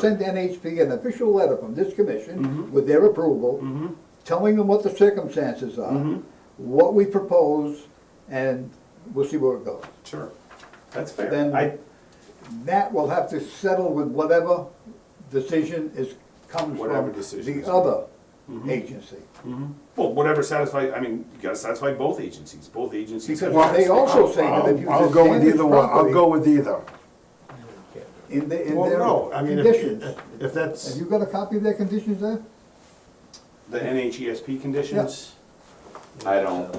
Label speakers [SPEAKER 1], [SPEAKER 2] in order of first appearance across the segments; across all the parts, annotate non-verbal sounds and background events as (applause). [SPEAKER 1] send NHP an official letter from this
[SPEAKER 2] Mm-hmm.
[SPEAKER 1] commission with their approval, telling them what the circumstances
[SPEAKER 2] Mm-hmm.
[SPEAKER 1] are, what we propose, and we'll see where it goes.
[SPEAKER 3] Sure, that's fair.
[SPEAKER 1] Then-
[SPEAKER 3] I,
[SPEAKER 1] That will have to settle with whatever decision is, comes
[SPEAKER 3] Whatever
[SPEAKER 1] from
[SPEAKER 3] decision
[SPEAKER 1] the
[SPEAKER 3] is-
[SPEAKER 1] other
[SPEAKER 2] Mm-hmm.
[SPEAKER 1] agency.
[SPEAKER 3] well, whatever satisfies, I mean, you gotta satisfy both agencies, both agencies. have
[SPEAKER 1] Because they
[SPEAKER 3] jurisdiction.
[SPEAKER 1] also say that if you
[SPEAKER 2] I'll I'll go with
[SPEAKER 1] disadvantage
[SPEAKER 2] either one, I'll
[SPEAKER 1] property
[SPEAKER 2] go with either.
[SPEAKER 1] in the, in
[SPEAKER 2] Well, no, I
[SPEAKER 1] their
[SPEAKER 2] mean,
[SPEAKER 1] conditions.
[SPEAKER 2] if, if that's,
[SPEAKER 1] Have you got a copy of their conditions there?
[SPEAKER 3] The NHESP conditions? I don't,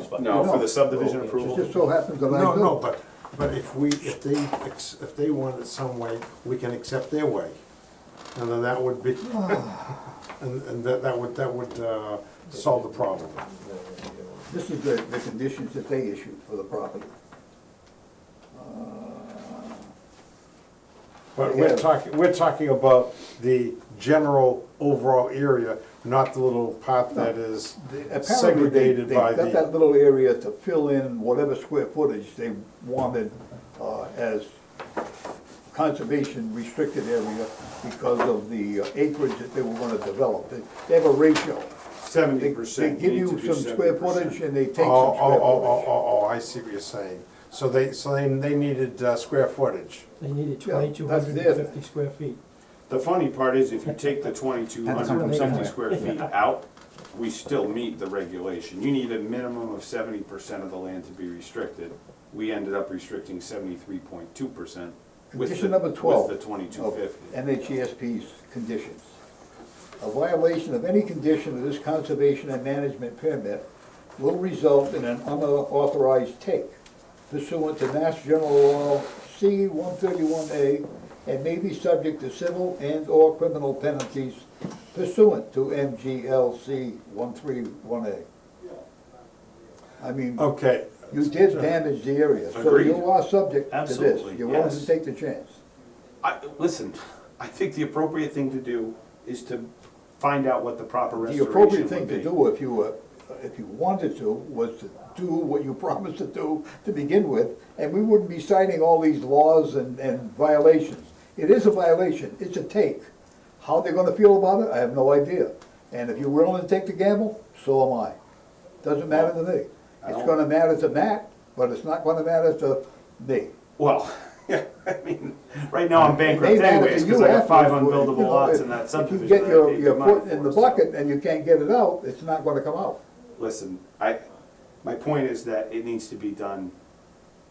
[SPEAKER 1] No.
[SPEAKER 3] no, for the subdivision
[SPEAKER 1] It
[SPEAKER 3] approval?
[SPEAKER 1] just so happens that I
[SPEAKER 2] Oh. no,
[SPEAKER 1] do.
[SPEAKER 2] no, but, but if we, if they, ex- if they want it some way, we can accept their way. And then that would be, (laughs) and, and that, that would, that would, uh, solve the problem.
[SPEAKER 1] This is the, the conditions that they issued for the property.
[SPEAKER 2] But we're
[SPEAKER 1] Yeah.
[SPEAKER 2] talking, we're talking about the general overall area, not the little part that is
[SPEAKER 1] Apparently, they,
[SPEAKER 2] segregated
[SPEAKER 1] they
[SPEAKER 2] by
[SPEAKER 1] got that
[SPEAKER 2] the.
[SPEAKER 1] little area to fill in whatever square footage they wanted, uh, as conservation restricted area because of the uh, acreage that they were gonna develop. They- They have a ratio. They-
[SPEAKER 3] Seventy percent.
[SPEAKER 1] They give you some square footage and they take some
[SPEAKER 2] Oh, oh,
[SPEAKER 1] square
[SPEAKER 2] oh, oh,
[SPEAKER 1] footage.
[SPEAKER 2] oh, oh, I see what you're saying. So they, so they, they needed, uh, square footage.
[SPEAKER 4] They needed
[SPEAKER 1] Yeah, that's
[SPEAKER 4] twenty-two hundred and fifty
[SPEAKER 1] it.
[SPEAKER 4] square feet.
[SPEAKER 3] The funny part is if you take the twenty-two hundred and fifty
[SPEAKER 4] somewhere.
[SPEAKER 3] square feet out, we still meet the regulation. You need a minimum of seventy percent of the land to be restricted. We ended up restricting seventy-three point two percent with
[SPEAKER 1] Condition
[SPEAKER 3] the,
[SPEAKER 1] number twelve. Oh,
[SPEAKER 3] with the twenty-two
[SPEAKER 1] of
[SPEAKER 3] fifty.
[SPEAKER 1] NHESP's E conditions. A violation of any condition of this conservation and management permit will result in an unauthorized take pursuant to Mass General Law C one thirty-one A and may be subject to civil and/or criminal penalties pursuant to MGLC one three one A. I mean,
[SPEAKER 2] Okay,
[SPEAKER 1] you did damage the area, so
[SPEAKER 3] Agreed.
[SPEAKER 1] you are subject to
[SPEAKER 3] Absolutely,
[SPEAKER 1] this. You wanted
[SPEAKER 3] yes.
[SPEAKER 1] to take the chance.
[SPEAKER 3] I, listen, I think the appropriate thing to do is to find out what the proper
[SPEAKER 1] The
[SPEAKER 3] restoration would be.
[SPEAKER 1] appropriate thing to do if you were, if you wanted to, was to do what you (laughs) promised to do to begin with, and we wouldn't be citing all these laws and, and violations. It is a violation, it's a take. How they're gonna feel about it, I have no idea. And if you're willing to take the gamble, so am I. Doesn't matter to me.
[SPEAKER 3] I
[SPEAKER 1] It's
[SPEAKER 3] don't-
[SPEAKER 1] gonna matter to Matt, but it's not gonna matter to me.
[SPEAKER 3] Well, (laughs) yeah, I mean, right now I'm
[SPEAKER 1] It may
[SPEAKER 3] bankrupt
[SPEAKER 1] matter to
[SPEAKER 3] anyways,
[SPEAKER 1] you
[SPEAKER 3] because I have five
[SPEAKER 1] afterwards, but, you
[SPEAKER 3] unbuildable
[SPEAKER 1] know,
[SPEAKER 3] lots
[SPEAKER 1] if-
[SPEAKER 3] in that subdivision.
[SPEAKER 1] If you get
[SPEAKER 3] that I
[SPEAKER 1] your,
[SPEAKER 3] paid
[SPEAKER 1] your
[SPEAKER 3] good money
[SPEAKER 1] foot in
[SPEAKER 3] for,
[SPEAKER 1] the
[SPEAKER 3] so-
[SPEAKER 1] bucket and you can't get it out, it's not gonna come out.
[SPEAKER 3] Listen, I, my point is that it needs to be done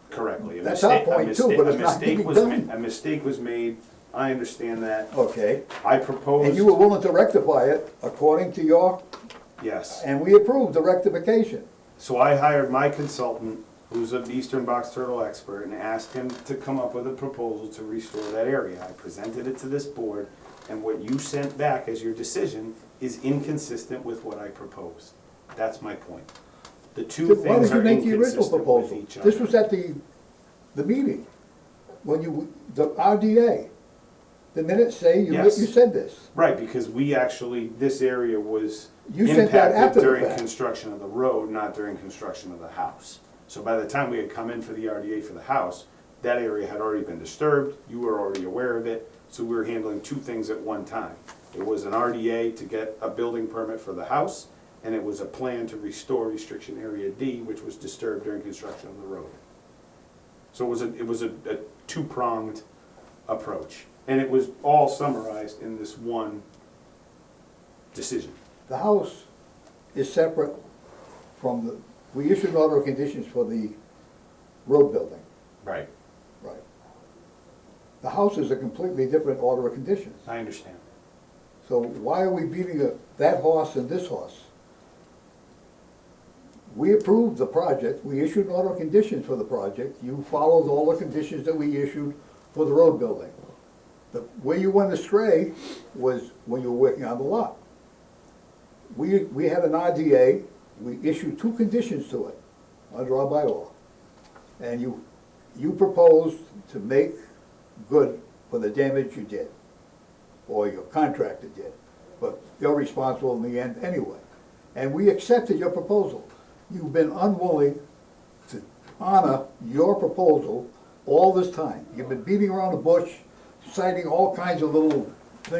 [SPEAKER 3] correctly. A
[SPEAKER 1] That's our
[SPEAKER 3] mistake- a
[SPEAKER 1] point too,
[SPEAKER 3] mistake-
[SPEAKER 1] but
[SPEAKER 3] a
[SPEAKER 1] it's not
[SPEAKER 3] mistake
[SPEAKER 1] being
[SPEAKER 3] was ma-
[SPEAKER 1] done.
[SPEAKER 3] A mistake was made, I understand that,
[SPEAKER 1] Okay,
[SPEAKER 3] I proposed,
[SPEAKER 1] and you were willing to rectify it according to your,
[SPEAKER 3] yes.
[SPEAKER 1] and we approved the rectification.
[SPEAKER 3] So I hired my consultant, who's an eastern box turtle expert, and asked him to come up with a proposal to restore that area. I presented it to this board, and what you sent back as your decision is inconsistent with what I proposed. That's my point. The two
[SPEAKER 1] Why
[SPEAKER 3] things
[SPEAKER 1] did you
[SPEAKER 3] are
[SPEAKER 1] make the original
[SPEAKER 3] inconsistent with
[SPEAKER 1] proposal?
[SPEAKER 3] each other.
[SPEAKER 1] This was at the, the meeting, when you, the RDA. The minutes say you, you
[SPEAKER 3] Yes.
[SPEAKER 1] said this.
[SPEAKER 3] Right, because we actually, this area was
[SPEAKER 1] You sent that after
[SPEAKER 3] impacted
[SPEAKER 1] the
[SPEAKER 3] during
[SPEAKER 1] fact.
[SPEAKER 3] construction of the road, not during construction of the house. So by the time we had come in for the RDA for the house, that area had already been disturbed, you were already aware of it, so we were handling two things at one time. It was an RDA to get a building permit for the house, and it was a plan to restore restriction area D, which was disturbed during construction of the road. So it was a, it was a, a two-pronged approach, and it was all summarized in this one decision.
[SPEAKER 1] The house is separate from the, we issued an order of conditions for the road building.
[SPEAKER 3] Right.
[SPEAKER 1] Right. The house is a completely different order of conditions.
[SPEAKER 3] I understand.
[SPEAKER 1] So why are we beating the- that horse and this horse? We approved the project, we issued an order of conditions for the project, you followed all the conditions that we issued for the road building. The, where you went astray was when you were working on the lot. We, we had an RDA, we issued two conditions to it, under our bylaw. And you, you proposed to make good for the damage you did or your contractor did, but you're responsible in the end anyway. And we accepted your proposal. You've been unwilling to honor your proposal all this time. You've been beating around the bush, citing all kinds of little